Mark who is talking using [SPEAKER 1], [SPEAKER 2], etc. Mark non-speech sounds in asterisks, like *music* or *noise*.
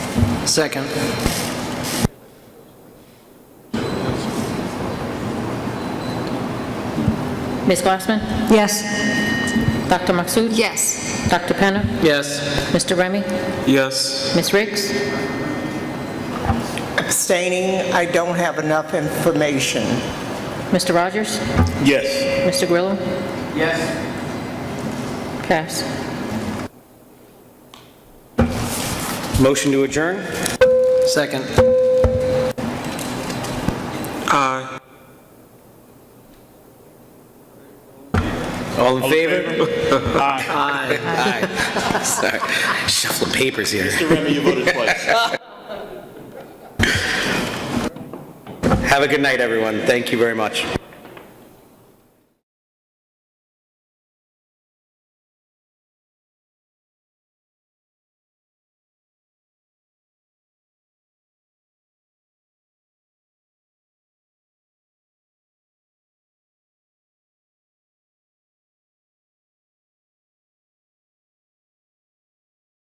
[SPEAKER 1] Second.
[SPEAKER 2] Ms. Glassman?
[SPEAKER 3] Yes.
[SPEAKER 2] Dr. Maxut?
[SPEAKER 3] Yes.
[SPEAKER 2] Dr. Penna?
[SPEAKER 1] Yes.
[SPEAKER 2] Mr. Remy?
[SPEAKER 4] Yes.
[SPEAKER 2] Ms. Riggs?
[SPEAKER 5] Abstaining, I don't have enough information.
[SPEAKER 2] Mr. Rogers?
[SPEAKER 4] Yes.
[SPEAKER 2] Mr. Grillo?
[SPEAKER 1] Yes.
[SPEAKER 2] Pass.
[SPEAKER 6] Motion to adjourn?
[SPEAKER 1] Second.
[SPEAKER 4] Aye.
[SPEAKER 6] All in favor? *laughs*
[SPEAKER 1] Aye.
[SPEAKER 6] Aye. Sorry, shuffling papers here.
[SPEAKER 4] Mr. Remy, you voted
[SPEAKER 6] *laughs*
[SPEAKER 4] twice.
[SPEAKER 6] Have a good night, everyone. Thank you very much.